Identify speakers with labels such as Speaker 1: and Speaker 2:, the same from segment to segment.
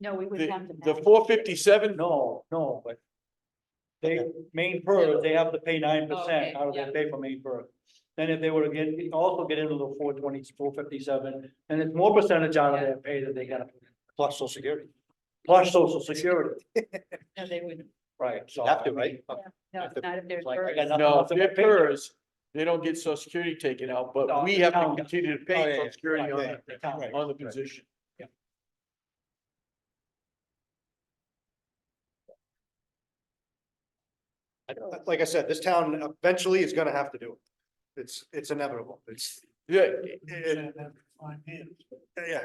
Speaker 1: No, we would have
Speaker 2: The,
Speaker 1: to.
Speaker 2: the
Speaker 1: match.
Speaker 2: four fifty-seven,
Speaker 3: No, no, but they, main purse, they have to pay nine percent out of their pay for main purse. Then if they were to get, also get into the four twenty, four fifty-seven, and it's more percentage out of their pay that they gotta, pay, plus social security. Plus social security,
Speaker 1: No, they wouldn't.
Speaker 3: right, so.
Speaker 4: Have
Speaker 3: I
Speaker 4: to,
Speaker 3: mean,
Speaker 4: right?
Speaker 1: No,
Speaker 4: If the-
Speaker 1: not if there's.
Speaker 3: it's like, I
Speaker 1: birds.
Speaker 3: got nothing
Speaker 2: no,
Speaker 3: else to
Speaker 2: they're
Speaker 3: pay.
Speaker 2: PERS, they don't get social security taken out, but
Speaker 3: No,
Speaker 2: we
Speaker 3: the
Speaker 2: have to
Speaker 3: town does.
Speaker 2: continue to
Speaker 4: Oh, yeah,
Speaker 2: pay
Speaker 4: yeah,
Speaker 2: social security
Speaker 3: right,
Speaker 2: on
Speaker 3: right, the town,
Speaker 2: that,
Speaker 3: right,
Speaker 2: on the
Speaker 4: right.
Speaker 2: position.
Speaker 3: Yeah.
Speaker 4: Like I said, this town eventually is gonna have to do it. It's, it's inevitable. It's,
Speaker 2: Yeah,
Speaker 4: it, yeah.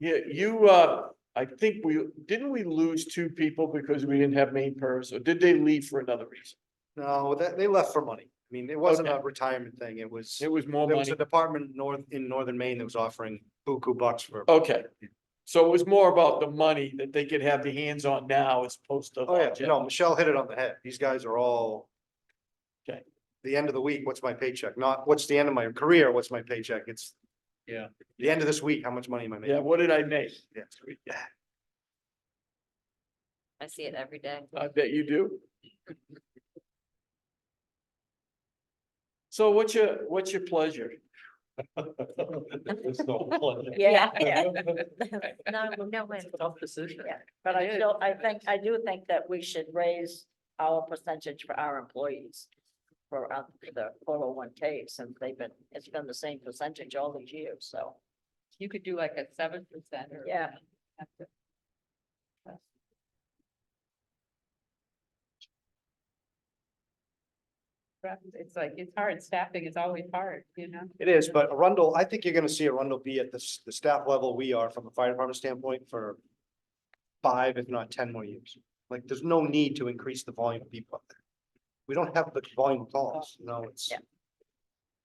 Speaker 2: yeah, you, uh, I think we, didn't we lose two people because we didn't have main PERS, or did they leave for another reason?
Speaker 4: No, that, they left for money. I mean, it wasn't a retirement thing. It was,
Speaker 2: It was more
Speaker 4: there was
Speaker 2: money,
Speaker 4: a department north, in northern Maine that was offering buku bucks for.
Speaker 2: okay. So it was more about the money that they could have their hands on now as opposed to.
Speaker 4: Oh, yeah, no, Michelle hit it on the head. These guys are all.
Speaker 2: Okay.
Speaker 4: The end of the week, what's my paycheck? Not what's the end of my career, what's my paycheck? It's.
Speaker 3: Yeah.
Speaker 4: The end of this week, how much money am I
Speaker 2: Yeah,
Speaker 4: making?
Speaker 2: what did I make?
Speaker 4: Yeah.
Speaker 5: I see it every day.
Speaker 2: I bet you do. So what's your, what's your pleasure?
Speaker 1: Yeah, yeah.
Speaker 5: No, no way.
Speaker 3: It's a Tough decision.
Speaker 6: Yeah. But I still, I think, I do think that we should raise our percentage for our employees. For uh, for the four oh one K since they've been, it's been the same percentage all these years, so.
Speaker 1: You could do like a seven percent or.
Speaker 6: Yeah.
Speaker 1: It's like, it's hard. Staffing is always hard, you know?
Speaker 4: It is, but Arundel, I think you're gonna see Arundel be at the, s- the staff level we are from a fire department standpoint for. Five, if not ten more years. Like, there's no need to increase the volume of people up there. We don't have the volume of calls, no, it's.
Speaker 6: Yeah.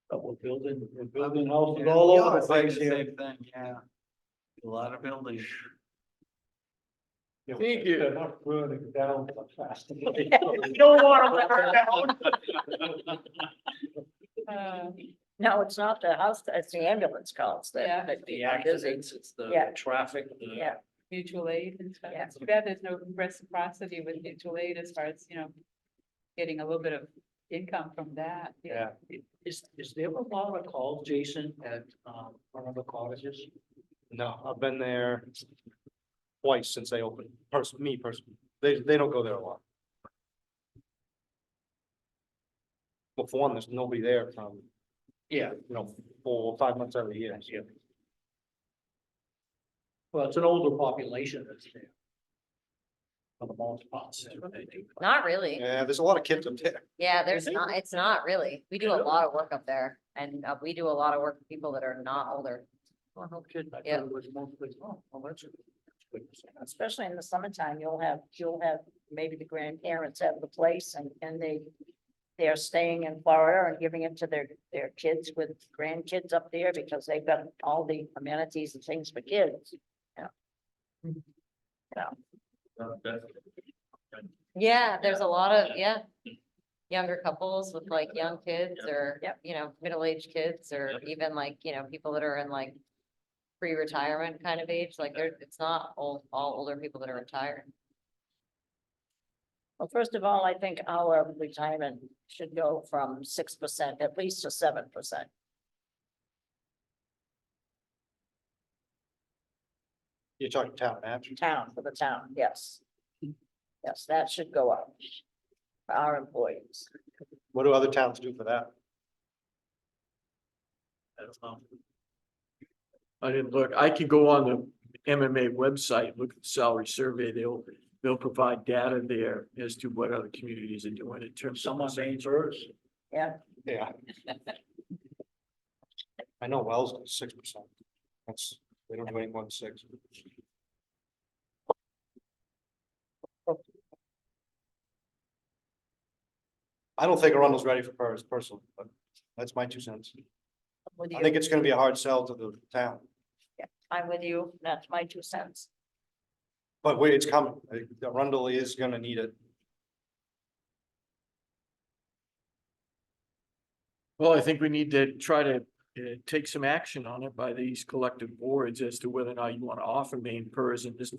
Speaker 3: But we're building, we're building houses all
Speaker 4: Yeah,
Speaker 3: over the
Speaker 4: it's like
Speaker 3: place
Speaker 4: the
Speaker 3: here.
Speaker 4: same
Speaker 3: yeah. A lot of buildings.
Speaker 4: you know,
Speaker 2: Thank you.
Speaker 3: They're not burning down so fast.
Speaker 6: don't want Uh, No, it's not the house, it's the ambulance calls
Speaker 1: Yeah.
Speaker 6: that, that
Speaker 3: The
Speaker 6: people are busy.
Speaker 3: accidents, it's the
Speaker 6: Yeah.
Speaker 3: traffic. the-
Speaker 6: Yeah.
Speaker 1: Mutual aid and stuff.
Speaker 6: Yeah.
Speaker 1: It's too bad there's no reciprocity with mutual aid as far as, you know, getting a little bit of income from that.
Speaker 4: Yeah.
Speaker 3: Is, is there a lot of calls, Jason, at, um, one of the colleges?
Speaker 4: No, I've been there twice since they opened, person, me personally. They, they don't go there a lot. Well, for one, there's nobody there from,
Speaker 3: Yeah.
Speaker 4: you know, four, or five months out of the year.
Speaker 3: Yeah. Well, it's an older population that's there. For the most part.
Speaker 5: Not really.
Speaker 4: Yeah, there's a lot of kids up there.
Speaker 5: Yeah, there's
Speaker 3: it?
Speaker 5: not, it's not really. We do a
Speaker 3: Really?
Speaker 5: lot of work up there and uh, we do a lot of work with people that are not older.
Speaker 3: Well, no kidding, I thought
Speaker 5: Yeah.
Speaker 3: it was mostly, oh, well, that's. a- that's a-
Speaker 6: Especially in the summertime, you'll have, you'll have, maybe the grandparents have the place and, and they. They're staying in Florida and giving it to their, their kids with grandkids up there because they've got all the amenities and things for kids.
Speaker 5: Yeah, there's a lot of, yeah. Younger couples with like young kids
Speaker 3: Yep.
Speaker 5: or,
Speaker 6: Yep.
Speaker 5: you know, middle-aged kids or
Speaker 3: Yep.
Speaker 5: even like, you know, people that are in like pre-retirement kind of age, like they're, it's not all, all older people that are retired.
Speaker 6: Well, first of all, I think our retirement should go from six percent at least to seven percent.
Speaker 4: You're talking town manager.
Speaker 6: Town, for the town, yes. Yes, that should go up. For our employees.
Speaker 4: What do other towns do for that?
Speaker 3: I don't know.
Speaker 2: I didn't look. I could go on the MMA website, look at the salary survey. They'll, they'll provide data there as to what other communities are doing in terms of.
Speaker 3: Someone saying first.
Speaker 4: Yeah. I know Wells does six percent. That's, they don't do any more than six. I don't think Arundel's ready for Paris personally, but that's my two cents.
Speaker 6: With
Speaker 4: I
Speaker 6: you,
Speaker 4: think it's gonna be a hard sell to the town,
Speaker 6: I'm with you, that's my two cents.
Speaker 4: but wait, it's coming. I think Arundel is gonna need it.
Speaker 2: Well, I think we need to try to uh, take some action on it by these collective boards as to whether or not you want to offer main PERS in this